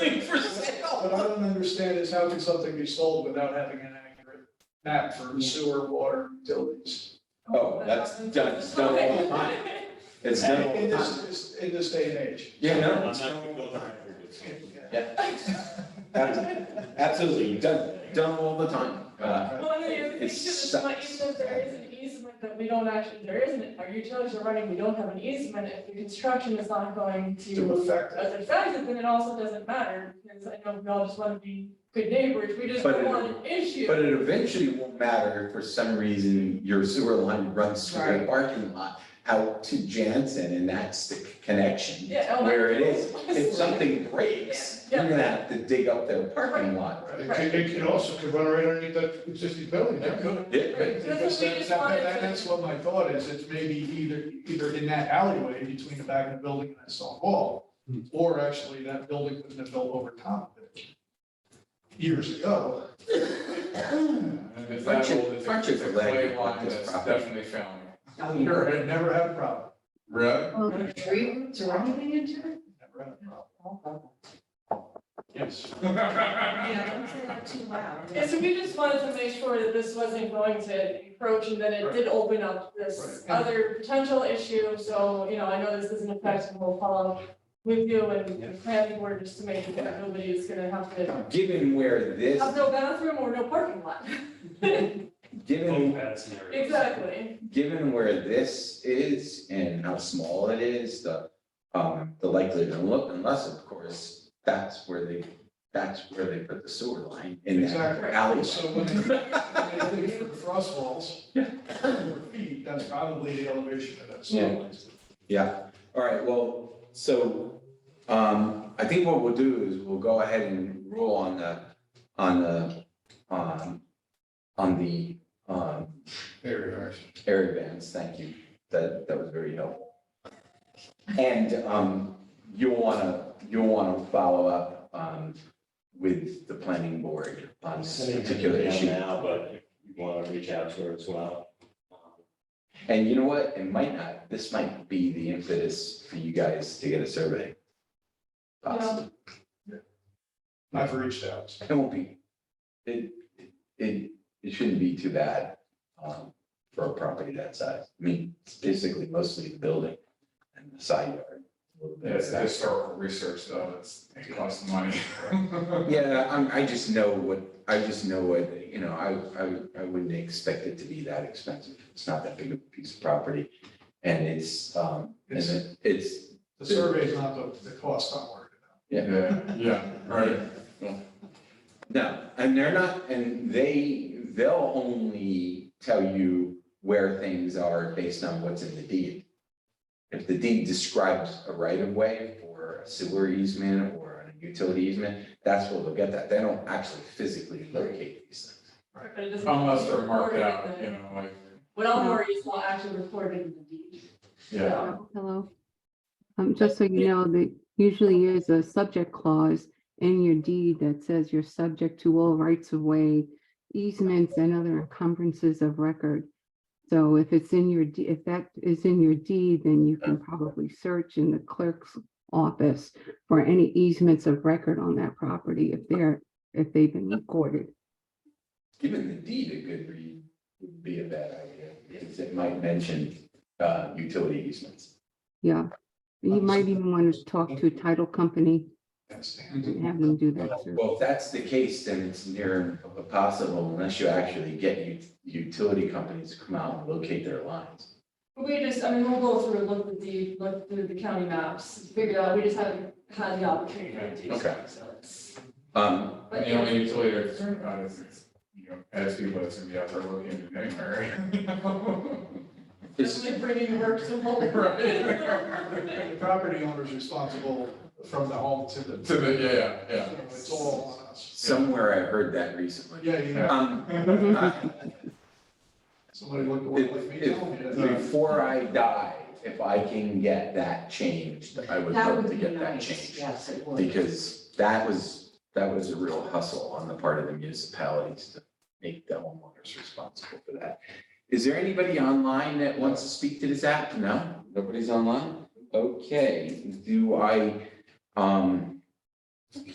What I don't understand is how can something be sold without having an accurate map for sewer, water, utilities? Oh, that's done, Oh, it's done. Okay. It's In done. in this, this- in this day and age. Yeah, no, I'm it's not gonna done. go there. Abs- Absolutely, done, done all the time. Uh, Well, and the other thing too, It's is not sucks. even if there is an easement that we don't actually, there isn't, our utilities are running, we don't have an easement, if the construction is not going To to affect it. as effective, then it also doesn't matter, because I know we all just wanna be good neighbors, we just But don't it- want an issue. But it eventually won't matter if for some reason your sewer line runs through the Right. parking lot out to Jansen and that's the connection. Yeah, oh, Where it that's- is, if something breaks, Yeah, you're yeah. gonna have to dig up their parking lot. Right. It could, it could also could run right underneath that existing building, It yeah. could. Yeah, Right. Because that's, that- that- that's what my thought is, it's maybe either, either in that alleyway between the back of the building and that stone wall, Hmm. or actually that building wouldn't have built over top of it years ago. And if that Aren't you- old, it's aren't you a, it's a glad you clay bought one this that's property? definitely failing. Never, had- never had a problem, Right? Well, the tree roots or anything into it? never had a problem, Oh, yes. Yeah, don't say that too loud. And so we just wanted to make sure that this wasn't going to encroach and that it did open up this Right. other potential issue. So, you know, I know this isn't effective, we'll follow up with you and the planning board just to make sure that nobody is gonna have to Given where this, have no bathroom or no parking lot. given, Overpass and everything. Exactly. given where this is and how small it is, the, um, the likelihood, unless of course, that's where they, that's where they put the sewer line in that Exactly. alleyway. So when they, when they leave for the frost walls, or feet, that's probably the elevation of that Yeah. soil. All right, well, so, um, I think what we'll do is we'll go ahead and rule on the, on the, um, on the, um, Very nice. air bands, thank you, that, that was very helpful. And, um, you'll wanna, you'll wanna follow up, um, with the planning board on this Sending it to particular them issue. Now, but if you want to reach out to her as well. And you know what, it might not, this might be the impetus for you guys to get a survey. Yeah. Possibly. I've reached out. It won't be, it, it, it shouldn't be too bad, um, for a property that size. I mean, it's basically mostly the building and the side yard. a little bit of It's that. historical research though, it's, it costs money. Yeah, I'm, I just know what, I just know what, you know, I, I, I wouldn't expect it to be that expensive. It's not that big of a piece of property. And it's, um, and it- it's, The survey's not the, the cost I'm worried about. Yeah, yeah, right. no, and they're not, and they, they'll only tell you where things are based on what's in the deed. If the deed describes a right of way or a sewer easement or a utility easement, that's where they'll get that. They don't actually physically locate these things. But it doesn't- Unless they're marked Recorded out, in you the- know, like, What I'm worried is not actually recorded in the deed. yeah. Uh, Hello. Um, just so you know, that usually is a subject clause in your deed that says you're subject to all rights of way, easements and other encumbrances of record. So if it's in your, de- if that is in your deed, then you can probably search in the clerk's office for any easements of record on that property if they're, if they've been recorded. Giving the deed a good read would be a bad idea, because it might mention uh, utility easements. Yeah. You might even want to talk to a title company That's the- and have them do that. search. Well, if that's the case, then it's near impossible unless you actually get ut- utility companies to come out and locate their lines. We just, I mean, we'll go through, look at the, look through the county maps, figure out, we just haven't had the opportunity to do so, Okay. so it's. Um, but And the yeah. only utility that's concerned about is, is, you know, as people that's gonna be out there looking at anywhere. is- Definitely bringing work to home. Right. The property owner's responsible from the home to the. To the, yeah, yeah. So It's all on us. somewhere I heard that recently. Yeah, yeah. Um, Mhm. uh, Somebody looked at if- it like me, told me if- that. Before I die, if I can get that changed, I would That love would to be get that nice, changed. yes, it would. because that was, that was a real hustle on the part of the municipalities to make the homeowners responsible for that. Is there anybody online that wants to speak to this app? No, nobody's online? Okay, do I, um,